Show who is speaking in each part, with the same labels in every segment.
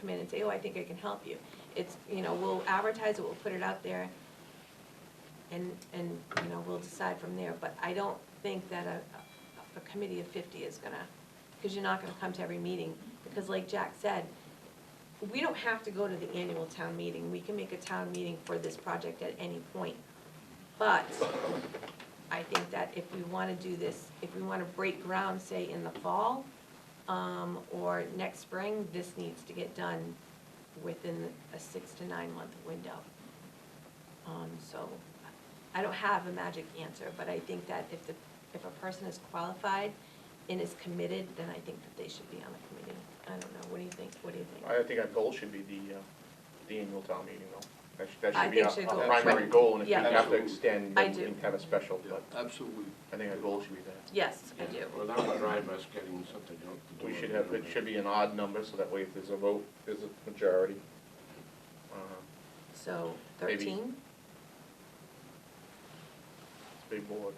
Speaker 1: come in and say, oh, I think I can help you. It's, you know, we'll advertise it, we'll put it out there, and, and, you know, we'll decide from there. But I don't think that a, a committee of fifty is gonna, because you're not gonna come to every meeting. Because like Jack said, we don't have to go to the annual town meeting, we can make a town meeting for this project at any point. But I think that if we wanna do this, if we wanna break ground, say, in the fall, um, or next spring, this needs to get done within a six to nine month window. Um, so, I don't have a magic answer, but I think that if the, if a person is qualified and is committed, then I think that they should be on the committee. I don't know, what do you think, what do you think?
Speaker 2: I think our goal should be the, uh, the annual town meeting though. That should, that
Speaker 1: I
Speaker 2: should be
Speaker 1: think should
Speaker 2: our-
Speaker 1: go-
Speaker 2: our primary
Speaker 1: right.
Speaker 2: goal, and if we
Speaker 1: Yeah.
Speaker 2: have to
Speaker 3: Absolutely.
Speaker 2: extend,
Speaker 1: I
Speaker 2: then we
Speaker 1: do.
Speaker 2: can have a special, but
Speaker 3: Absolutely.
Speaker 2: I think our goal should be that.
Speaker 1: Yes, I do.
Speaker 3: Well, that would drive us getting something out the door.
Speaker 2: We should have, it should be an odd number, so that way if there's a vote, there's a majority. Um,
Speaker 1: So
Speaker 2: Maybe.
Speaker 1: thirteen,
Speaker 2: It's a big board.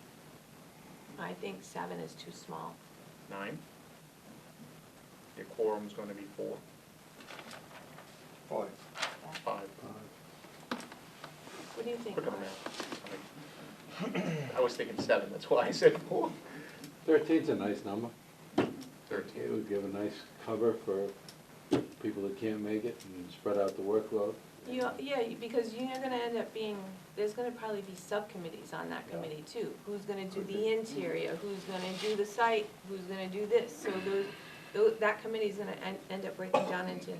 Speaker 1: I think seven is too small.
Speaker 2: Nine? Your quorum's gonna be four,
Speaker 4: Five.
Speaker 2: five.
Speaker 1: What do you think?
Speaker 2: Quick on the
Speaker 1: Mark?
Speaker 2: math. I mean, I was thinking seven, that's why I said four.
Speaker 5: Thirteen's a nice number. It
Speaker 2: Thirteen.
Speaker 5: would give a nice cover for people that can't make it and spread out the workload.
Speaker 1: You, yeah, you- because you're gonna end up being, there's gonna probably be subcommittees on that
Speaker 5: Yeah.
Speaker 1: committee too. Who's gonna do the interior, who's gonna do the site, who's gonna do this? So those, tho- that committee's gonna end, end up breaking down into,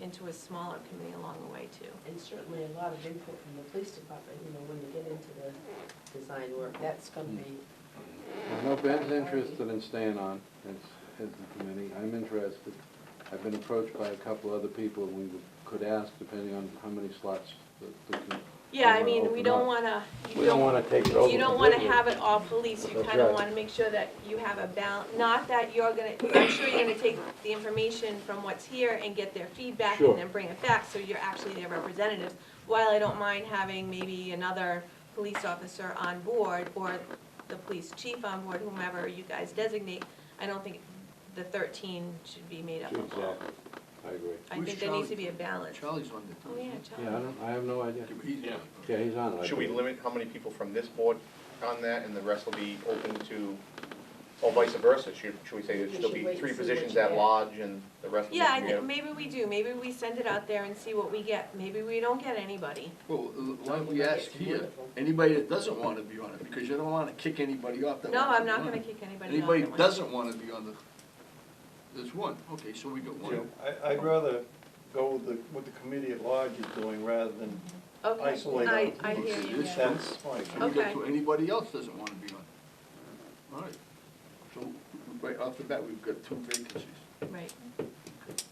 Speaker 1: into a smaller committee along the way too.
Speaker 6: And certainly a lot of input from the police department, you know, when you get into the design work, that's gonna
Speaker 3: Hmm.
Speaker 6: be,
Speaker 5: I know Ben's interested in staying on as, as the committee. I'm interested. I've been approached by a couple other people we could ask depending on how many slots the, the. com-
Speaker 1: Yeah, I
Speaker 5: wanna
Speaker 1: mean, we
Speaker 5: open
Speaker 1: don't
Speaker 5: up.
Speaker 1: wanna, you
Speaker 5: We don't
Speaker 1: don't,
Speaker 5: wanna take it over.
Speaker 1: you don't wanna
Speaker 5: completely.
Speaker 1: have it all police. You
Speaker 5: That's
Speaker 1: kinda
Speaker 5: right.
Speaker 1: wanna make sure that you have a balance, not that you're gonna, I'm sure you're gonna take the information from what's here and get their feedback
Speaker 5: Sure.
Speaker 1: and then bring it back, so you're actually their representatives. While I don't mind having maybe another police officer on board or the police chief on board, whomever you guys designate, I don't think the thirteen should be made up of all.
Speaker 5: Exactly. I agree.
Speaker 1: I
Speaker 3: Who's
Speaker 1: think there needs
Speaker 3: Charlie?
Speaker 1: to be a balance. Oh,
Speaker 3: Charlie's on the.
Speaker 1: yeah,
Speaker 5: Yeah, I
Speaker 1: Charlie.
Speaker 5: don't, I have no idea.
Speaker 3: Yeah.
Speaker 5: Yeah, he's on it. I
Speaker 2: Should we
Speaker 5: believe.
Speaker 2: limit how many people from this board on that, and the rest will be open to, or vice versa? Should, should we say there
Speaker 6: We
Speaker 2: should
Speaker 6: should
Speaker 2: be
Speaker 6: wait
Speaker 2: three
Speaker 6: and see what
Speaker 2: positions
Speaker 6: you
Speaker 2: at
Speaker 6: get.
Speaker 2: large and the rest of them?
Speaker 1: Yeah, I think, maybe we do, maybe we send it out there and see what we get, maybe we don't get anybody.
Speaker 3: Well, uh, why don't we ask here, anybody that doesn't wanna be on it, because you don't wanna kick anybody off that.
Speaker 1: No,
Speaker 3: wants to
Speaker 1: I'm
Speaker 3: be
Speaker 1: not
Speaker 3: on
Speaker 1: gonna
Speaker 3: it.
Speaker 1: kick anybody off.
Speaker 3: Anybody
Speaker 1: that
Speaker 3: that
Speaker 1: one.
Speaker 3: doesn't wanna be on the, there's one, okay, so we got one.
Speaker 4: I, I'd rather go with the, what the committee at large is doing rather than,
Speaker 1: Okay,
Speaker 4: isolate
Speaker 1: I,
Speaker 4: them.
Speaker 1: I hear
Speaker 3: Okay,
Speaker 1: you,
Speaker 3: this
Speaker 1: yeah.
Speaker 3: one.
Speaker 4: that's my opinion.
Speaker 3: And we got
Speaker 1: Okay.
Speaker 3: two, anybody else doesn't wanna be on it. All right, so right off the bat, we've got two vacancies,
Speaker 1: right.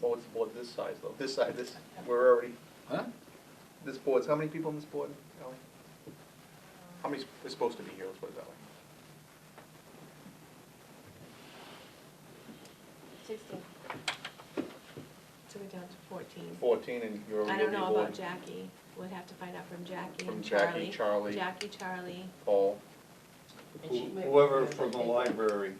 Speaker 2: Well, what's the board this size though? This side, this, we're already,
Speaker 3: huh?
Speaker 2: this board's, how many people on this board, Ally? How many is supposed to be here, let's put it that way?
Speaker 1: Sixteen. So we're down to fourteen.
Speaker 2: Fourteen, and you're
Speaker 1: I
Speaker 2: already
Speaker 1: don't
Speaker 2: on the
Speaker 1: know about
Speaker 2: board.
Speaker 1: Jackie, we'll have to find out from Jackie
Speaker 2: From
Speaker 1: and Charlie.
Speaker 2: Jackie, Charlie,
Speaker 1: Jackie, Charlie,
Speaker 2: Paul,
Speaker 6: and she might.
Speaker 4: Whoever from the library,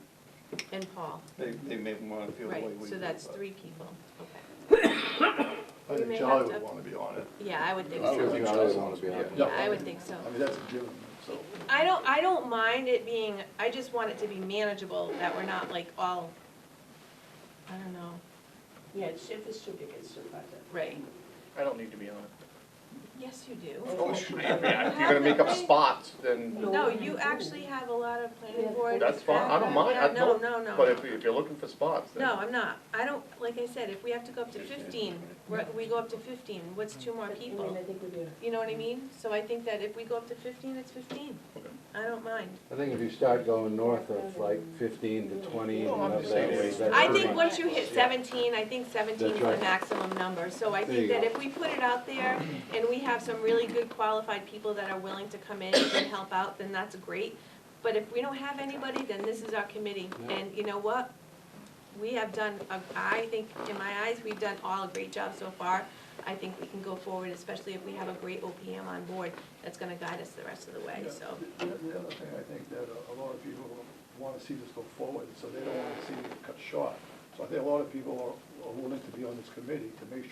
Speaker 1: and Paul,
Speaker 4: they, they may wanna feel the way
Speaker 1: right,
Speaker 4: we do.
Speaker 1: so that's
Speaker 4: but-
Speaker 1: three people, okay.
Speaker 7: I
Speaker 1: We may
Speaker 7: think Charlie
Speaker 1: have
Speaker 7: would
Speaker 1: to-
Speaker 7: want to be on it.
Speaker 1: Yeah, I would think
Speaker 5: I would
Speaker 1: so,
Speaker 5: think Charlie would wanna be on it.
Speaker 1: yeah, I would think so.
Speaker 7: I mean, that's a given, so.
Speaker 1: I don't, I don't mind it being, I just want it to be manageable, that we're not like all, I don't know,
Speaker 6: Yeah, it's- if it's too big, it's too bad.
Speaker 1: right?
Speaker 2: I don't need to be on it.
Speaker 1: Yes, you do.
Speaker 6: Oh,
Speaker 7: course you would.
Speaker 2: Yeah, If you're gonna make up spots, then,
Speaker 6: No.
Speaker 1: No, you actually have a lot of planning board.
Speaker 2: that's fine, I don't mind, I
Speaker 1: background.
Speaker 2: don't,
Speaker 1: No, no,
Speaker 2: but
Speaker 1: no.
Speaker 2: if, if you're looking for spots, then.
Speaker 1: No, I'm not. I don't, like I said, if we have to go up to fifteen, we're- we go up to fifteen, what's two more
Speaker 6: I mean,
Speaker 1: people?
Speaker 6: I think we do.
Speaker 1: You know what I mean? So I think that if we go up to fifteen, it's fifteen.
Speaker 2: Okay.
Speaker 1: I don't mind.
Speaker 5: I think if you start going north of like fifteen to twenty and
Speaker 2: Well, I'm
Speaker 5: up
Speaker 2: just
Speaker 5: that
Speaker 2: saying
Speaker 5: way,
Speaker 2: it's-
Speaker 5: that's
Speaker 1: I
Speaker 5: pretty-
Speaker 1: think once you hit seventeen, I think seventeen is
Speaker 5: That's
Speaker 1: the
Speaker 5: right.
Speaker 1: maximum number, so I
Speaker 5: There
Speaker 1: think
Speaker 5: you
Speaker 1: that
Speaker 5: go.
Speaker 1: if we put it out there and we have some really good qualified people that are willing to come in and help out, then that's great. But if we don't have anybody, then this is our committee,
Speaker 5: Yeah.
Speaker 1: and you know what? We have done, a- I think, in my eyes, we've done all a great job so far. I think we can go forward, especially if we have a great OPM on board that's gonna guide us the rest of the way,
Speaker 7: Yeah.
Speaker 1: so.
Speaker 7: The the other thing, I think that a a lot of people want to see this go forward, so they don't want to see it cut short. So I think a lot of people are- are willing to be on this committee to make sure